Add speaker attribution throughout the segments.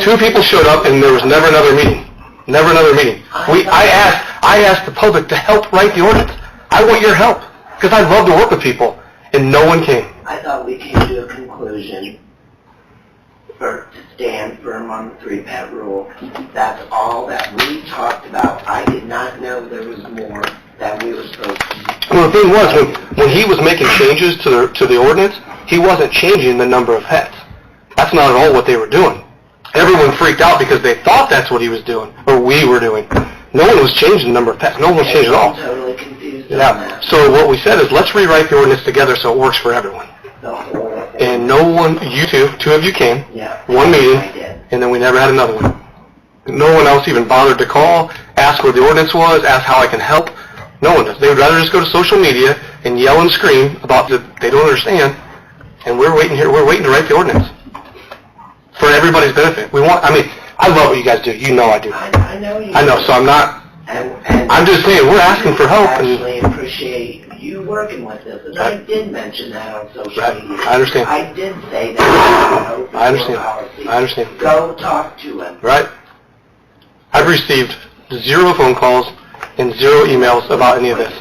Speaker 1: two people showed up and there was never another meeting. Never another meeting. We, I asked, I asked the public to help write the ordinance. I want your help, because I love to work with people, and no one came.
Speaker 2: I thought we came to a conclusion Er, for, to stand firm on the three-pet rule. That's all that we talked about. I did not know there was more that we were supposed to.
Speaker 1: Well, the thing was, when, when he was making changes to the, to the ordinance, he wasn't changing the number of pets. That's not at all what they were doing. Everyone freaked out because they thought that's what he was doing, or we were doing. No one was changing the number of pets. No one was changing at
Speaker 2: I'm
Speaker 1: all.
Speaker 2: totally confused on
Speaker 1: Yeah,
Speaker 2: that.
Speaker 1: so what we said is, let's rewrite the ordinance together so it works for everyone.
Speaker 2: The whole thing.
Speaker 1: And no one, you two, two of you came,
Speaker 2: Yeah.
Speaker 1: one meeting,
Speaker 2: I did.
Speaker 1: and then we never had another one. No one else even bothered to call, ask where the ordinance was, ask how I can help. No one does. They would rather just go to social media and yell and scream about that they don't understand, and we're waiting here, we're waiting to write the ordinance for everybody's benefit. We want, I mean, I love what you guys do. You know I do.
Speaker 2: I, I know you.
Speaker 1: I know, so I'm not,
Speaker 2: And, and.
Speaker 1: I'm just saying, we're asking for help and-
Speaker 2: Actually appreciate you working with us, and I
Speaker 1: Right.
Speaker 2: did mention that on social
Speaker 1: Right.
Speaker 2: media.
Speaker 1: I understand.
Speaker 2: I did say that. open door
Speaker 1: I understand.
Speaker 2: policy.
Speaker 1: I understand.
Speaker 2: Go talk to him.
Speaker 1: right? I've received zero phone calls and zero emails about any of this.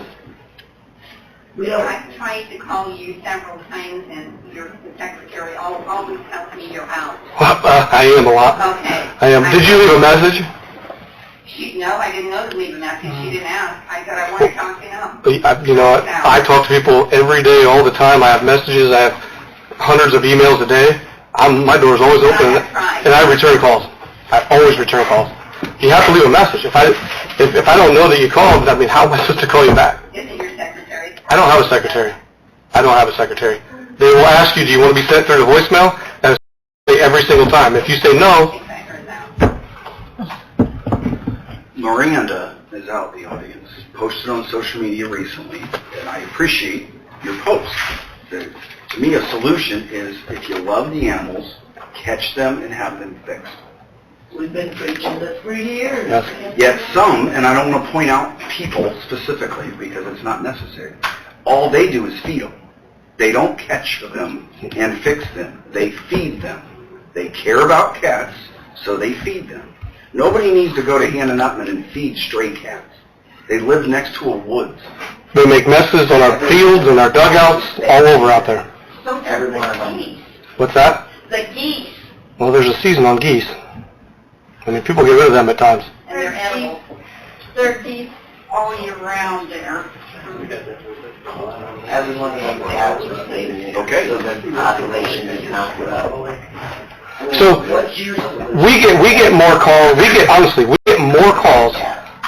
Speaker 2: We don't,
Speaker 3: I've tried to call you several times and your secretary al- always tells me you're out.
Speaker 1: Uh, I am a lot.
Speaker 3: Okay.
Speaker 1: I am. Did you leave a message?
Speaker 3: She, no, I didn't know to leave a message. She didn't ask. I said I want to talk to him.
Speaker 1: I- uh, You know, I I talk to people every day, all the time. I have messages. I have hundreds of emails a day. I'm, my door's always open, and I return calls. I always return calls. You have to leave a message. If I, if, if I don't know that you called, I mean, how am I supposed to call you back?
Speaker 3: Is it your secretary?
Speaker 1: I don't have a secretary. I don't have a secretary. They will ask you, do you want to be sent through to voicemail? And say every single time. If you say
Speaker 3: I
Speaker 1: no,
Speaker 3: think I heard that.
Speaker 4: Miranda is out in the audience, posted on social media recently, and I appreciate your post. The- To me, a solution is if you love the animals, catch them and have them fixed.
Speaker 2: we've been preaching this for years.
Speaker 1: Yes.
Speaker 4: Yet some, and I don't want to point out people specifically because it's not necessary, all they do is feed them. They don't catch them and fix them. They feed them. They care about cats, so they feed them. Nobody needs to go to Hannah Nutman and feed stray cats. They live next to a woods.
Speaker 1: they make messes on our fields and our dugouts, all over out there.
Speaker 3: So does
Speaker 2: Everyone.
Speaker 3: the geese.
Speaker 1: What's that?
Speaker 3: The geese
Speaker 1: Well, there's a season on geese. I mean, people get rid of them at times.
Speaker 3: and their animals. There are geese all year round there.
Speaker 2: Everyone wants to have the same name,
Speaker 4: Okay.
Speaker 2: so the population is not level.
Speaker 1: So-
Speaker 2: What's your solution?
Speaker 1: We get we get more calls. We get honestly, we get more calls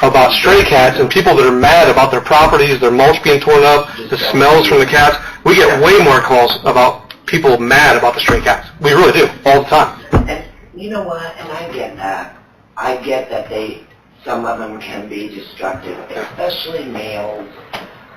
Speaker 1: about stray cats and people that are mad about their properties, their mulch being torn up, the smells from the cats. We get way more calls about people mad about the stray cats. We really do all the time.
Speaker 2: And you know what, and I get that. I get that they, some of them can be destructive, especially males,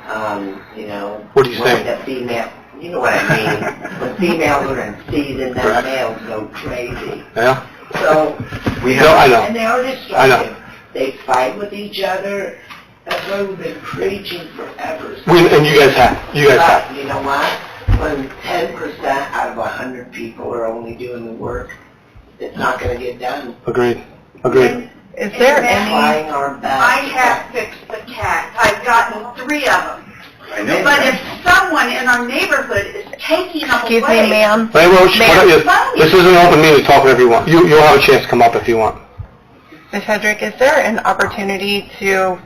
Speaker 2: um, you know.
Speaker 1: What are you
Speaker 2: when
Speaker 1: saying?
Speaker 2: The female, you know what I mean? When females are in season,
Speaker 1: Correct.
Speaker 2: then males go crazy.
Speaker 1: Yeah.
Speaker 2: So,
Speaker 4: We
Speaker 1: No, I
Speaker 4: have,
Speaker 1: know.
Speaker 2: and they are
Speaker 1: I know.
Speaker 2: destructive. They fight with each other. That's why we've been preaching forever.
Speaker 1: We and you guys have. You guys have.
Speaker 2: But you know what? When ten percent out of a hundred people are only doing the work, it's not gonna get done.
Speaker 1: Agreed. Agreed.
Speaker 5: Is there any,
Speaker 2: Flying our back.
Speaker 3: I have fixed the cats. I've gotten three of them.
Speaker 4: I know.
Speaker 3: But if someone in our neighborhood is taking them away.
Speaker 5: excuse me, ma'am,
Speaker 1: Hey, Roach, why don't you- this is an open meeting. Talk whatever you want. You you'll have a chance to come up if you want.
Speaker 5: Ms. Hedrick, is there an opportunity to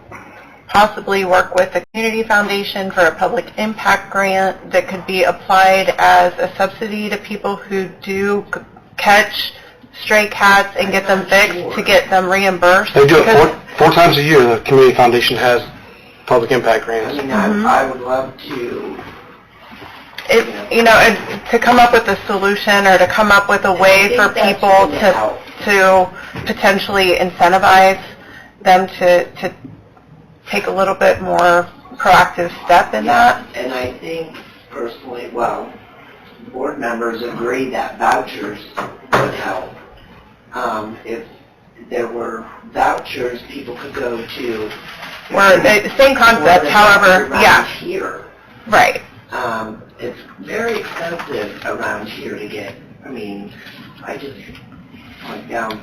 Speaker 5: possibly work with the Community Foundation for a public impact grant that could be applied as a subsidy to people who do c- catch stray cats and get them fixed to get them reimbursed?
Speaker 1: They do it
Speaker 5: Because-
Speaker 1: four, four times a year. The community foundation has public impact
Speaker 2: I
Speaker 1: grants.
Speaker 2: mean, I, I would love to.
Speaker 5: it, you know, it, to come up with a solution or to come up with a
Speaker 2: I
Speaker 5: way
Speaker 2: think
Speaker 5: for
Speaker 2: that's
Speaker 5: people
Speaker 2: really
Speaker 5: to,
Speaker 2: out.
Speaker 5: to potentially incentivize them to, to take a little bit more proactive step in that.
Speaker 2: And I think personally, well, board members agree that vouchers would help. Um, if there were vouchers, people could go to.
Speaker 5: Or the same concept,
Speaker 2: Or the
Speaker 5: however,
Speaker 2: around
Speaker 5: yeah,
Speaker 2: Here,
Speaker 5: right.
Speaker 2: um, it's very expensive around here to get, I mean, I just went down